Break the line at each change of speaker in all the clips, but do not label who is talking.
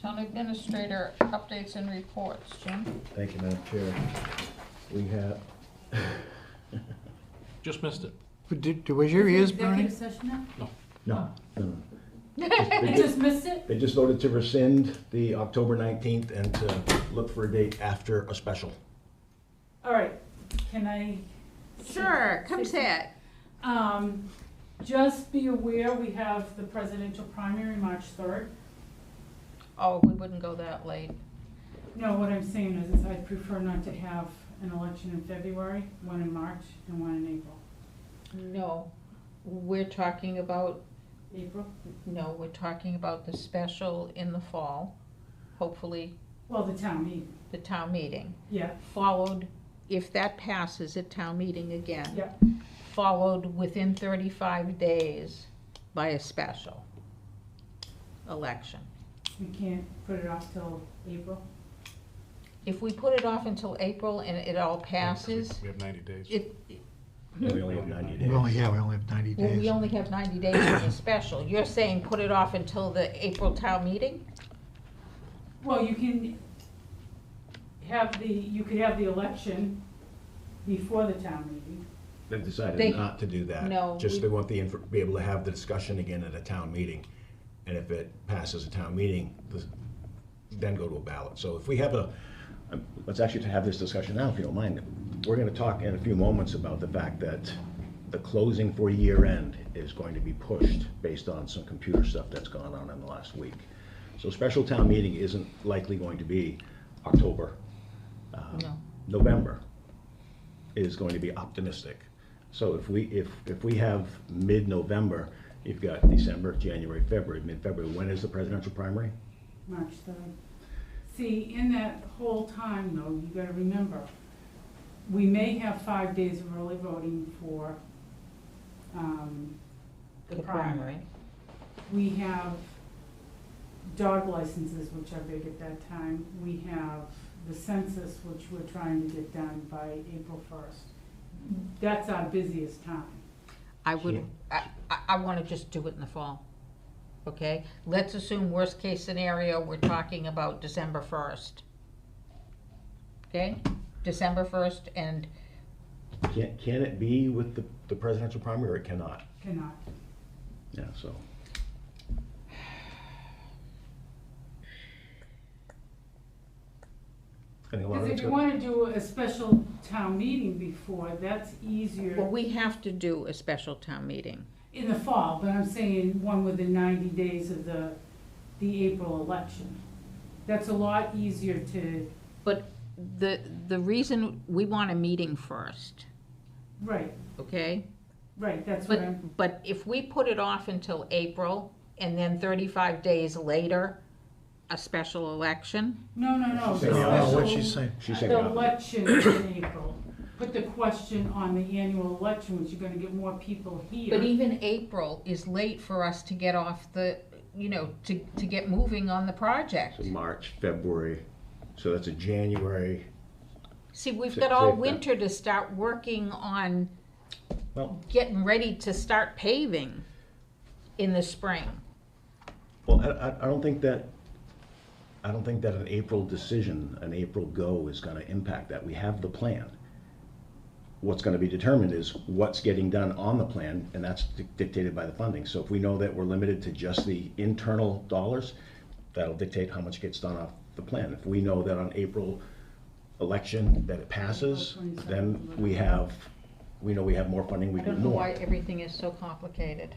Town administrator updates and reports, Jim?
Thank you, Madam Chair. We have,
Just missed it.
Did, was your ears burning?
Executive session now?
no, no, no.
I just missed it.
They just voted to rescind the October 19th and to look for a date after a special.
All right, can I?
Sure, come
Sixty-
say it.
Um, just be aware, we have the presidential primary March third.
Oh, we wouldn't go that late.
No, what I'm saying is, is I prefer not to have an election in February, one in March, and one in April.
No, we're talking about,
April?
no, we're talking about the special in the fall, hopefully
Well, the town meeting,
the town meeting,
yeah,
followed, if that passes at town meeting again.
yeah,
followed within thirty-five days by a special election.
we can't put it off till April.
If we put it off until April and it all passes,
We have ninety days.
it,
We only have 90 days.
We only, yeah, we only have ninety
well, we
days.
only have ninety days for the special. You're saying put it off until the April town meeting?
Well, you can have the, you could have the election before the town meeting.
They've
They-
decided not to do that.
No, we-
Just they want the, inf- be able to have the discussion again at a town meeting. And if it passes a town meeting, the- then go to a ballot. So if we have a, um, let's actually have this discussion now, if you don't mind. We're going to talk in a few moments about the fact that the closing for year end is going to be pushed based on some computer stuff that's gone on in the last week. So special town meeting isn't likely going to be October. uh,
No.
November is going to be optimistic. So if we, if, if we have mid-November, you've got December, January, February, mid-February, when is the presidential primary?
March third. See, in that whole time though, you gotta remember, we may have five days of early voting for, um, the primary. We have dog licenses, which are big at that time. We have the census, which we're trying to get done by April first. That's our busiest time.
I would, I, I, I wanna just do it in the fall, okay? Let's assume worst case scenario, we're talking about December first. Okay, December first and
Can, can it be with the, the presidential primary or it cannot?
Cannot.
Yeah, so. I think a lot of
Because if
it's
you
gonna-
wanna do a special town meeting before, that's easier.
Well, we have to do a special town meeting.
In the fall, but I'm saying one within ninety days of the, the April election. That's a lot easier to,
But the, the reason, we want a meeting first,
right,
okay?
right, that's what I'm,
But, but if we put it off until April and then thirty-five days later, a special election,
no, no, no.
She's
the
saying-
No, what
special-
she's saying.
She's saying,
The
no.
election in April, put the question on the annual election, which you're gonna get more people
but
here.
even April is late for us to get off the, you know, to, to get moving on the project.
so March, February, so that's a January,
See, we've
Sa-
got all
save that.
winter to start working on
well,
getting ready to start paving in the spring.
Well, I, I- I don't think that, I don't think that an April decision, an April go is gonna impact that. We have the plan. What's gonna be determined is what's getting done on the plan, and that's dic- dictated by the funding. So if we know that we're limited to just the internal dollars, that'll dictate how much gets done off the plan. If we know that on April election that it passes, then we have, we know we have more funding, we
I
do
don't know
more.
why everything is so complicated.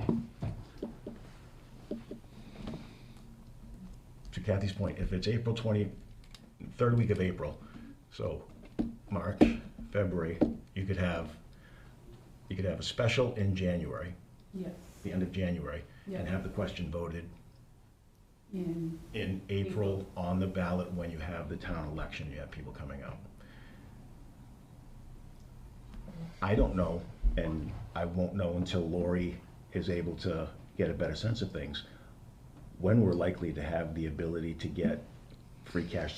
to Kathy's point, if it's April 20, third week of April, so March, February, you could have, you could have a special in January,
Yes,
the end of January, and
Yeah.
have the question voted
in,
in April on the ballot when you have the town election, you have people coming out. I don't know, and I won't know until Lori is able to get a better sense of things, when we're likely to have the ability to get free cash